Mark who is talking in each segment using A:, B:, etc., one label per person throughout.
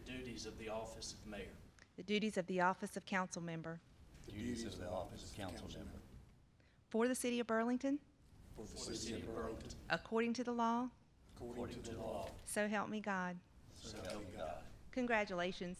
A: duties of the office of mayor.
B: the duties of the office of council member
C: the duties of the office of council member
B: for the city of Burlington
A: For the city of Burlington,
B: according to the law.
A: according to the law,
B: So help me God.
A: so help me God.
B: Congratulations.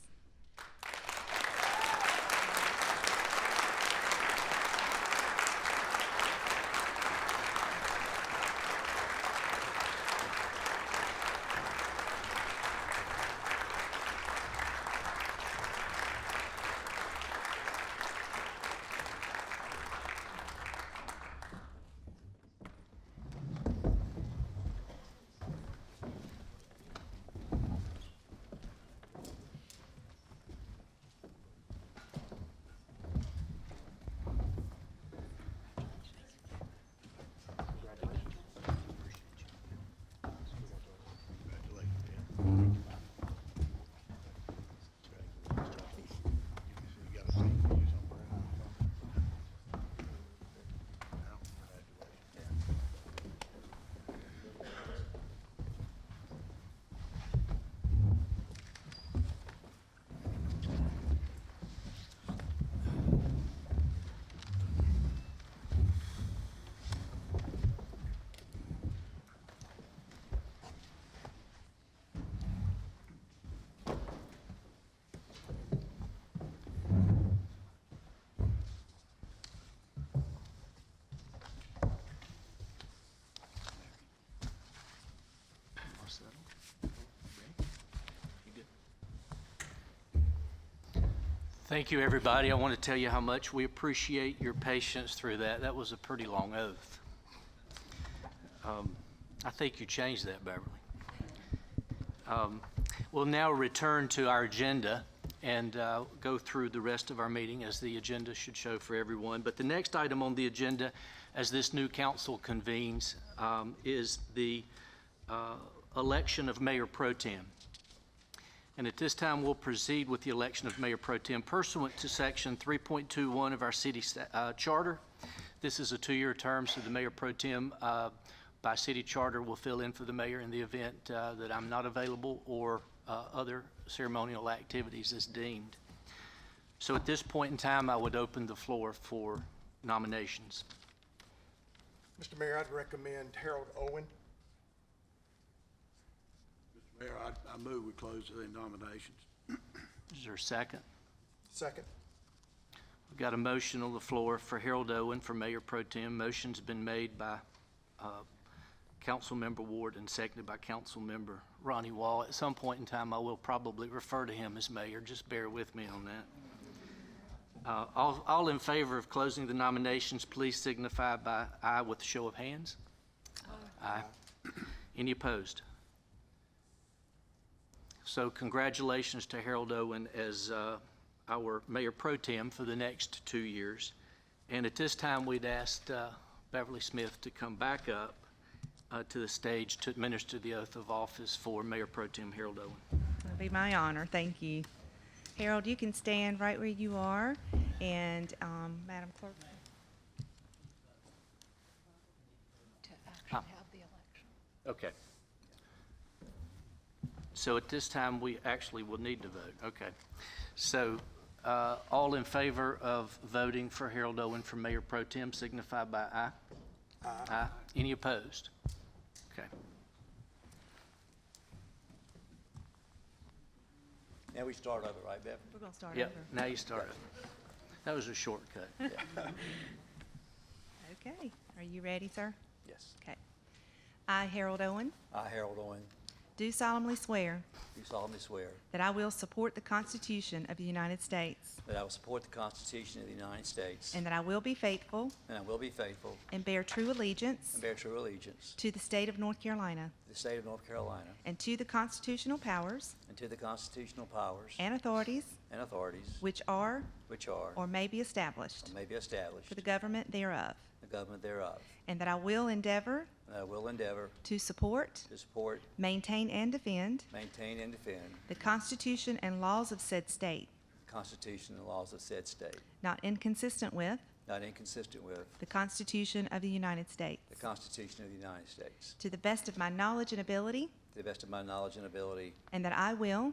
A: Thank you, everybody. I want to tell you how much we appreciate your patience through that. That was a pretty long oath. Um, I think you changed that, Beverly. Um, We'll now return to our agenda and uh, go through the rest of our meeting as the agenda should show for everyone. But the next item on the agenda, as this new council convenes, um, is the uh, election of mayor pro tem. And at this time, we'll proceed with the election of Mayor Pro Tem pursuant to Section 3.21 of our city sta- uh, charter. This is a two-year term, so the Mayor Pro Tem, uh, by city charter, will fill in for the mayor in the event uh, that I'm not available or uh, other ceremonial activities as deemed. So at this point in time, I would open the floor for nominations.
D: Mr. Mayor, I'd recommend Harold Owen.
E: Mayor, I, I move we close the nominations.
A: Is there a second?
D: Second.
A: We've got a motion on the floor for Harold Owen for Mayor Pro Tem. Motion's been made by uh, Councilmember Ward and seconded by Councilmember Ronnie Wall. At some point in time, I will probably refer to him as mayor. Just bear with me on that. Uh, All all in favor of closing the nominations, please signify by aye with a show of hands. Aye. Any opposed? So congratulations to Harold Owen as uh, our mayor pro tem for the next two years. And at this time, we'd asked uh, Beverly Smith to come back up uh, to the stage to administer the oath of office for Mayor Pro Tem Harold Owen.
B: It'll be my honor. Thank you. Harold, you can stand right where you are. And um, Madam Clerk,
F: to actually have the election.
A: Okay. So at this time, we actually will need to vote. Okay. So uh, all in favor of voting for Harold Owen for Mayor Pro Tem signify by aye. Aye. Any opposed? Okay.
C: now we start over right bev
B: we're going to start
A: Yep,
B: over.
A: now you start. That was a shortcut.
B: Okay. Are you ready, sir?
C: yes
B: Okay. I, Harold Owen,
C: i harold owen
B: do solemnly swear
C: do solemnly swear
B: that I will support the Constitution of the United States
C: that i will support the constitution of the united states
B: and that I will be faithful
C: and i will be faithful
B: and bear true allegiance
C: and bear true allegiance
B: to the state of North Carolina
C: to the state of north carolina
B: and to the constitutional powers
C: and to the constitutional powers
B: and authorities
C: and authorities
B: which are
C: which are
B: or may be established
C: or may be established
B: for the government thereof,
C: the government thereof
B: and that I will endeavor
C: and i will endeavor
B: to support,
C: to support
B: maintain, and defend
C: maintain and defend
B: the Constitution and laws of said state,
C: the constitution and laws of said state
B: not inconsistent with
C: not inconsistent with
B: the Constitution of the United States,
C: the constitution of the united states
B: to the best of my knowledge and ability,
C: to the best of my knowledge and ability
B: and that I will